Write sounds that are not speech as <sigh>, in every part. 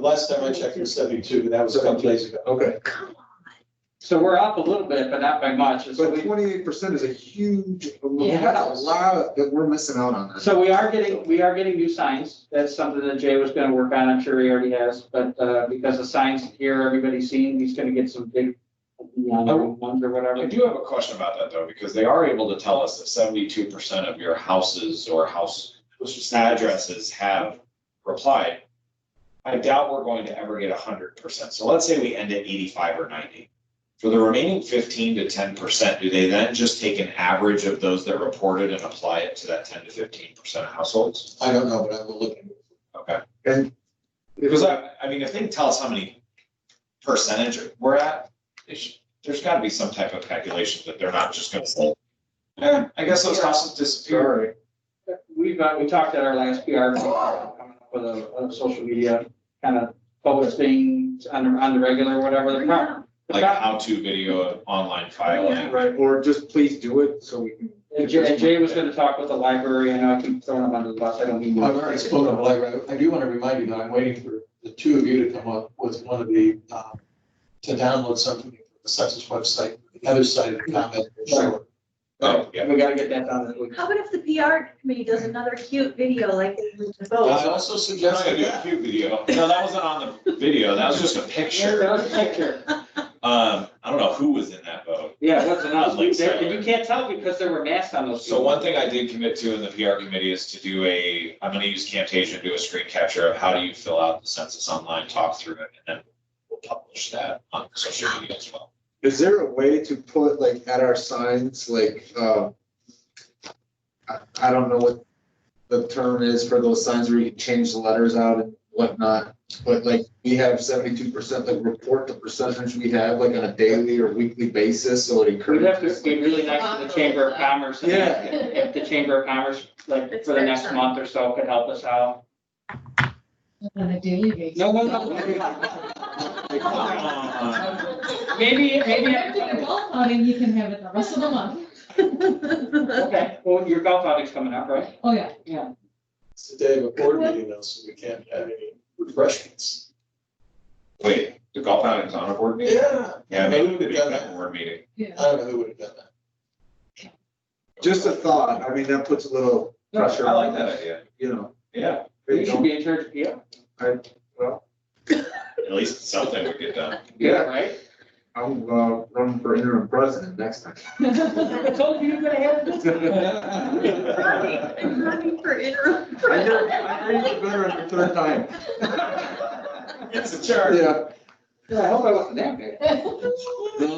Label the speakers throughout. Speaker 1: last time I checked it was seventy-two, and that was a couple days ago.
Speaker 2: Okay,
Speaker 3: So we're up a little bit, but not by much. So
Speaker 2: but
Speaker 3: we,
Speaker 2: twenty-eight percent is a huge, we
Speaker 3: Yeah.
Speaker 2: got a lot that we're missing out on.
Speaker 3: so we are getting, we are getting new signs. That's something that Jay was gonna work on. I'm sure he already has, but, uh, because the signs here, everybody's seen, he's gonna get some big
Speaker 1: Oh.
Speaker 3: neon ones or
Speaker 4: I
Speaker 3: whatever.
Speaker 4: do have a question about that though, because they are able to tell us that seventy-two percent of your houses or house addresses have replied. I doubt we're going to ever get hundred percent. So let's say we end at eighty-five or ninety. For the remaining fifteen to ten percent, do they then just take an average of those that reported and apply it to that ten to fifteen percent of households?
Speaker 2: I don't know, but I will look.
Speaker 4: Okay,
Speaker 2: And.
Speaker 4: because I, I mean, if they can tell us how many percentage we're at, they should, there's gotta be some type of calculation that they're not just gonna say, eh, I guess those houses disappeared.
Speaker 2: Sorry.
Speaker 3: We've, uh, we talked at our last PR, meeting, coming up with a, a social media kind of public thing on, the- on the regular, whatever. The pro- the
Speaker 4: like
Speaker 3: pro-
Speaker 4: a how-to video of online filing.
Speaker 3: Right.
Speaker 2: Or just please do it so we can.
Speaker 3: And Jay, and Jay was gonna talk with the library, I know I keep throwing him under the bus, I don't mean. to.
Speaker 1: I've already spoken of the library. I do want to remind you that I'm waiting for the two of you to come up with one of the, um, to download something from the census website, the other side of the comment.
Speaker 3: Sure.
Speaker 4: Oh, yeah.
Speaker 3: We gotta get that done this week.
Speaker 5: How about if the PR committee does another cute video like they did the
Speaker 1: And
Speaker 5: vote?
Speaker 1: I also
Speaker 4: That's
Speaker 1: suggested
Speaker 4: a new
Speaker 1: that.
Speaker 4: cute video. No, that wasn't on the video. That was just a
Speaker 3: That
Speaker 4: picture.
Speaker 3: was a picture,
Speaker 4: Um, I don't know who was in that boat.
Speaker 3: yeah, it wasn't us,
Speaker 4: Like
Speaker 3: There-
Speaker 4: so.
Speaker 3: you can't tell because there were masks on those.
Speaker 4: So one thing I did commit to in the PR committee is to do a, I'm gonna use Camtasia, and do a screen capture of how do you fill out the census online, talk through it, and then we'll publish that on social media as well.
Speaker 2: Is there a way to put like at our signs, like, uh, I, I don't know what the term is for those signs where you can change the letters out and whatnot, but like, we have seventy-two percent, like report the percentage we have, like on a daily or weekly basis, so it
Speaker 3: We'd have
Speaker 2: encourages.
Speaker 3: to be really nice to the Chamber of Commerce. and
Speaker 2: Yeah.
Speaker 3: If the Chamber of Commerce, like, for the next month or so could help us out.
Speaker 6: On a daily basis.
Speaker 3: No, no,
Speaker 2: Uh,
Speaker 3: no. Maybe, maybe.
Speaker 6: If you're doing golf outing, you can have it the rest of the month.
Speaker 3: Okay, well, your golf outing's coming up, right?
Speaker 6: Oh, yeah.
Speaker 1: It's the day of a board meeting though, so we can't have any refreshments.
Speaker 4: Wait, the golf outing's on a board meeting?
Speaker 1: Yeah.
Speaker 4: Yeah, maybe we could
Speaker 1: have
Speaker 4: make
Speaker 1: done
Speaker 4: that a
Speaker 1: that.
Speaker 4: board meeting.
Speaker 6: Yeah.
Speaker 1: I don't know who would have done that.
Speaker 2: Just a thought, I mean, that puts a little pressure.
Speaker 4: I
Speaker 2: on
Speaker 4: like
Speaker 2: them,
Speaker 4: that idea.
Speaker 2: You know.
Speaker 4: Yeah,
Speaker 3: You should be in charge, yeah,
Speaker 4: at least something would get done.
Speaker 3: yeah, right?
Speaker 2: I'm, uh, running for interim president next time.
Speaker 3: I told you you're gonna have this.
Speaker 5: I'm running for interim.
Speaker 2: I know, I know you're better on the third time.
Speaker 4: It's a charge.
Speaker 2: Yeah,
Speaker 3: Yeah, I hope I wasn't that big.
Speaker 2: no,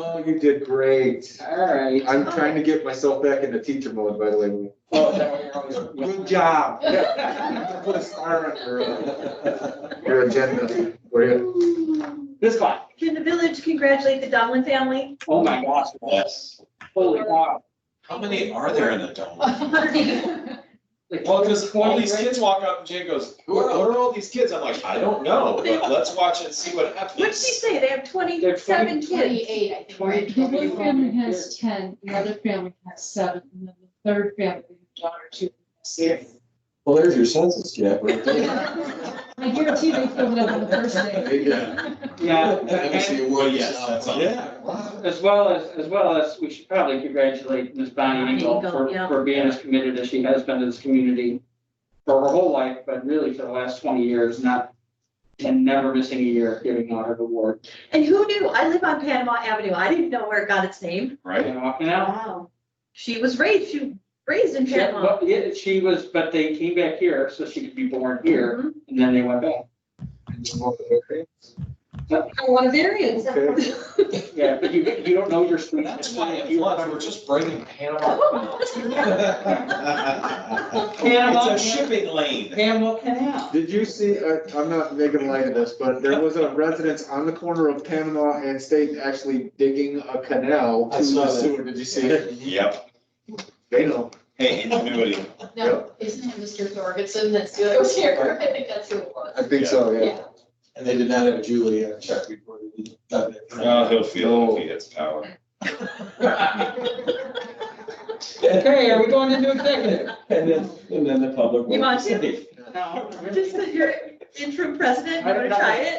Speaker 2: Oh, you did great.
Speaker 3: All right.
Speaker 2: I'm trying to get myself back into teacher mode, by the way.
Speaker 3: Oh, is that what you're
Speaker 2: <laughs>
Speaker 3: always-
Speaker 2: Good job. Yeah. <laughs> Put a star on your, uh, your agenda. We're good.
Speaker 3: This one.
Speaker 5: Can the village congratulate the Donlin family?
Speaker 3: Oh my gosh,
Speaker 4: Yes.
Speaker 3: holy wow.
Speaker 4: How many are there in the dome?
Speaker 3: Like,
Speaker 4: Well, because all
Speaker 3: Twenty,
Speaker 4: these
Speaker 3: right?
Speaker 4: kids walk up and Jay goes, who are, who are all these kids? I'm like, I don't know, but let's watch and see what
Speaker 5: What'd she
Speaker 4: happens.
Speaker 5: say? They have twenty-seven
Speaker 7: <laughs>
Speaker 5: kids.
Speaker 7: Twenty-eight, I think.
Speaker 3: Twenty-
Speaker 7: right?
Speaker 6: One family has ten, the other family has seven, and then the third family, the daughter, two.
Speaker 7: Yes.
Speaker 1: Well, there's your census gap right
Speaker 2: <laughs>
Speaker 6: I guarantee they filled it up on the first day.
Speaker 5: <laughs>
Speaker 2: Yeah.
Speaker 3: Yeah,
Speaker 1: Obviously,
Speaker 3: and
Speaker 1: it
Speaker 4: Well,
Speaker 1: was,
Speaker 4: yes, that's on.
Speaker 3: as well as, as well as, we should probably congratulate Ms. Bonnie Engel
Speaker 5: Engel,
Speaker 3: for,
Speaker 5: yeah.
Speaker 3: for being as committed as she has been to this community for her whole life, but really for the last twenty years, not, and never missing a year giving out her award.
Speaker 5: And who knew? I live on Panama Avenue. I didn't know where it got its name.
Speaker 3: You
Speaker 4: Right?
Speaker 3: know, and I-
Speaker 5: Wow. She was raised, she was raised in
Speaker 3: she-
Speaker 5: Panama.
Speaker 3: but yeah, she was, but they came back here so she could be born here,
Speaker 5: Mhm.
Speaker 3: and then they went back.
Speaker 5: I'm one of Arians.
Speaker 2: Okay.
Speaker 5: <laughs>
Speaker 3: Yeah, but you, you don't know your street.
Speaker 4: That's why it floods, we're just bringing <laughs> Panama.
Speaker 2: <laughs>
Speaker 3: Panama.
Speaker 4: It's a shipping lane.
Speaker 3: Panama Canal.
Speaker 2: Did you see, I, I'm not making light of this, but there was a residence on the corner of Panama and State actually digging a canal
Speaker 1: I
Speaker 2: to
Speaker 1: saw
Speaker 2: the
Speaker 1: that.
Speaker 2: sewer. Did you
Speaker 1: <laughs>
Speaker 2: see it?
Speaker 4: Yep.
Speaker 2: They know.
Speaker 4: Hey, ingenuity.
Speaker 7: No, isn't it Mr. Thorgensen that's the other here? <laughs> I think that's who it was.
Speaker 2: I think so, yeah.
Speaker 7: Yeah.
Speaker 1: And they did not have Julie on check report. He done it.
Speaker 4: Oh, he'll feel it if he hits power.
Speaker 3: Okay, are we going into executive?
Speaker 1: And then, and then the public.
Speaker 5: You want to?
Speaker 1: will-
Speaker 3: No.
Speaker 5: Just because you're interim president, you want to try it?